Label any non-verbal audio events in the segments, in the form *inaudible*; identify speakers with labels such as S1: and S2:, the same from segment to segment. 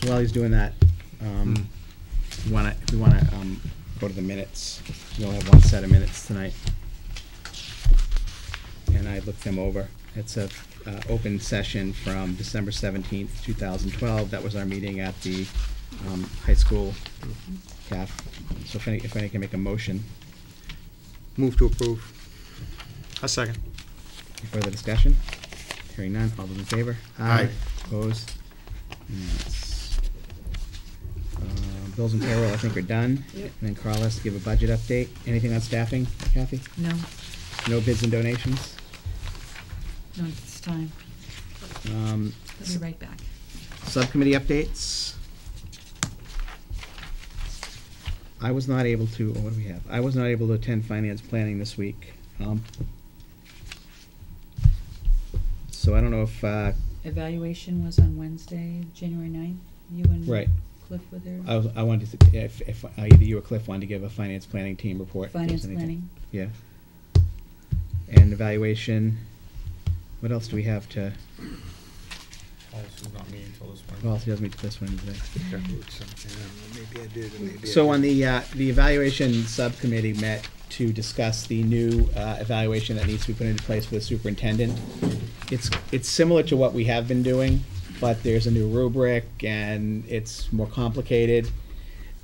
S1: So while he's doing that, um, we wanna, we wanna, um, go to the minutes. We only have one set of minutes tonight. And I looked them over. It's a, uh, open session from December seventeenth, two thousand twelve. That was our meeting at the, um, high school CAF. So if any, if any can make a motion,
S2: Move to approve. A second.
S1: any further discussion? Hearing none, all those in favor?
S2: Aye.
S1: Opposed? Unanimous. Uh, Bills and payroll, I think, are done. And
S3: Yep.
S1: then Carl has to give a budget update. Anything on staffing, Kathy?
S3: No,
S1: No bids and donations?
S3: not this time.
S1: Um,
S3: I'll be right back.
S1: Subcommittee updates? I was not able to, oh, what do we have? I was not able to attend finance planning this week. Um, So I don't know if, uh,
S3: Evaluation was on Wednesday, January ninth. You
S1: Right.
S3: and Cliff were there.
S1: I, was- I wanted to, if, if either you or Cliff wanted to give a finance planning team report. if there's
S3: Finance
S1: anything.
S3: planning.
S1: Yeah. And evaluation, what else do we have to,
S4: Policy's not meeting until this
S1: well,
S4: morning.
S1: it doesn't meet this one today.
S2: Maybe I did, and maybe I
S1: So on
S2: didn't.
S1: the, uh, the evaluation subcommittee met to discuss the new, uh, evaluation that needs to be put into place for the superintendent. It's, it's similar to what we have been doing, but there's a new rubric and it's more complicated.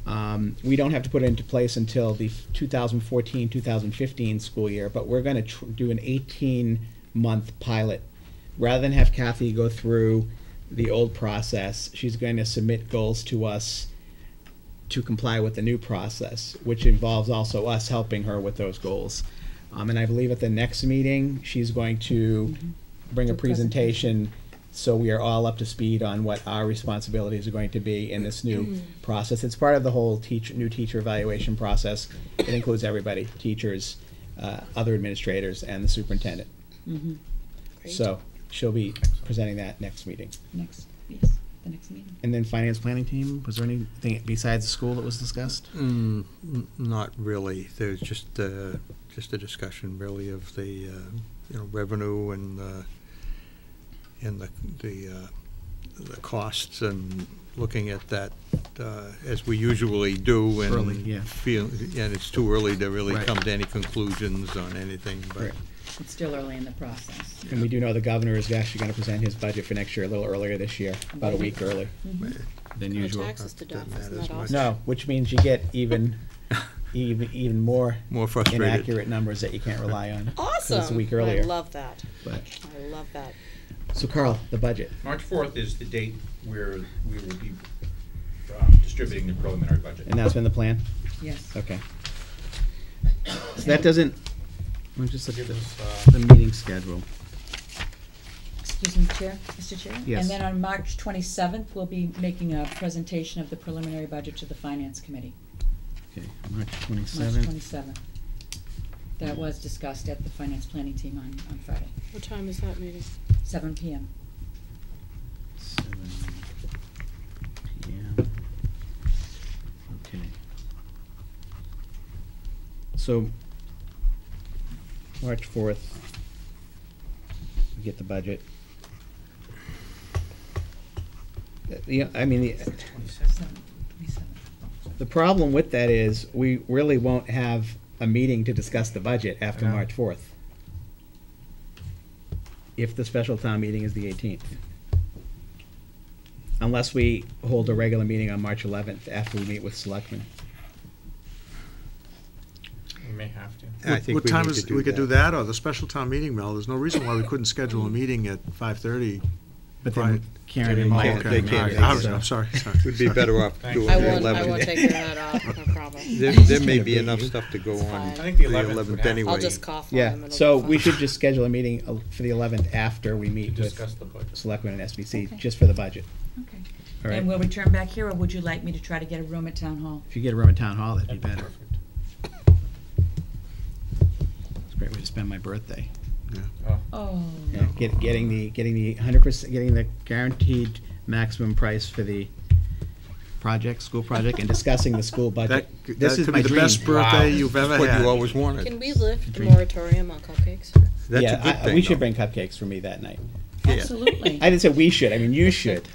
S1: Um, we don't have to put it into place until the 2014, 2015 school year, but we're gonna tr- do an 18-month pilot. Rather than have Kathy go through the old process, she's going to submit goals to us to comply with the new process, which involves also us helping her with those goals. Um, and I believe at the next meeting, she's going to bring a
S3: Do a presentation.
S1: presentation so we are all up to speed on what our responsibilities are going to be in this new process. It's part of the whole teach, new teacher evaluation process. It includes everybody, teachers, uh, other administrators, and the superintendent.
S3: Mm-hmm,
S1: So she'll be presenting that next meeting.
S3: next, yes, the next meeting.
S1: And then finance planning team, was there anything besides the school that was discussed?
S2: Mm, n- Not really. There's just, uh, just a discussion really of the, uh, you know, revenue and, uh, and the, the, uh, the costs and looking at that, uh, as we usually do and
S1: Early, yeah.
S2: feel, and it's too early to really
S1: Right.
S2: come to any conclusions on anything, but
S1: Right.
S3: It's still early in the process.
S1: And we do know the governor is actually gonna present his budget for next year a little earlier this year, about a week early.
S3: Mhm.
S1: Than
S5: No taxes to
S2: Doesn't
S5: doff,
S2: matter
S5: isn't
S2: as
S5: that
S2: much.
S5: awesome?
S1: No, which means you get even, *laughs* even, even more
S2: more frustrated.
S1: inaccurate numbers that you can't rely
S4: *laughs*
S1: on. 'cause
S5: Awesome.
S1: It's a week earlier.
S5: I love that.
S1: But,
S5: I love that.
S1: so Carl, the budget.
S4: March fourth is the date where we will be um, distributing the preliminary budget.
S1: And that's been the plan?
S3: Yes.
S1: Okay. So that doesn't, I'm just looking
S4: Give
S1: at
S4: us, uh,
S1: the, the meeting schedule.
S3: Excuse me, Chair, Mr. Chair?
S1: Yes.
S3: And then on March twenty-seventh, we'll be making a presentation of the preliminary budget to the Finance Committee,
S1: Okay, March
S3: March
S1: twenty-seventh.
S3: twenty-seventh. That was discussed at the Finance Planning Team on, on Friday,
S5: What time is that meeting?
S3: seven PM.
S1: Seven PM. Okay. So, March fourth, we get the budget. Uh, Yeah, I mean, the,
S3: Seven, twenty-seven.
S1: the problem with that is, we really won't have a meeting to discuss the budget after
S4: I know.
S1: March fourth. If the special town meeting is the eighteenth. Unless we hold a regular meeting on March eleventh after we meet with selectmen.
S4: We may have to.
S2: I
S6: What-
S2: think
S6: What
S2: we
S6: time
S2: need to
S6: is,
S2: do
S6: we could do
S2: that.
S6: that, or the special town meeting, Mel, there's no reason why we couldn't schedule a meeting at five-thirty.
S1: But then
S6: Right.
S1: Karen and
S4: They
S1: Mike.
S4: can't-
S1: are
S2: they
S1: gonna
S2: can't
S1: make
S2: make
S1: it,
S2: it.
S1: so-
S6: I'm
S2: *laughs*
S6: sorry, sorry.
S2: We'd be better off
S4: Thank
S2: doing
S4: you.
S5: I
S2: the
S5: won't, I
S2: eleventh.
S5: won't take that off,
S2: *laughs*
S5: no problem.
S2: There, there may be enough stuff to go
S5: It's
S2: on
S5: fine.
S2: the
S5: I
S4: think the 11th would
S2: eleventh
S4: have-
S2: anyway.
S5: I'll just cough on them.
S1: Yeah,
S5: it'll
S1: so
S5: be
S1: we
S5: fine.
S1: should just schedule a meeting uh, for the eleventh after we
S4: To
S1: meet with
S4: discuss the budget.
S1: selectmen and SBC,
S3: Okay.
S1: just for the budget.
S3: Okay.
S1: All right.
S3: And will we turn back here, or would you like me to try to get a room at Town Hall?
S1: If you get a room at town hall, that'd be
S4: That'd be
S1: better.
S4: perfect.
S1: It's a great way to spend my birthday.
S4: Oh,
S3: Oh.
S1: Yeah, get, getting the, getting the hundred percent, getting the guaranteed maximum price for the project, school project, and discussing the school budget.
S6: That, c-
S1: This
S6: that
S1: is
S6: could
S1: my
S6: be the
S1: dream.
S6: best
S4: Wow.
S6: birthday you've ever
S2: That's
S6: had.
S2: what you always
S5: Can
S1: *laughs*
S2: wanted.
S5: we lift the
S1: Drink.
S5: moratorium on cupcakes?
S2: That's
S1: Yeah,
S2: a good
S1: I-
S2: thing,
S1: We should
S2: though.
S1: bring cupcakes for me that night.
S2: Yeah.
S3: Absolutely.
S1: I didn't say we should, I mean, you should.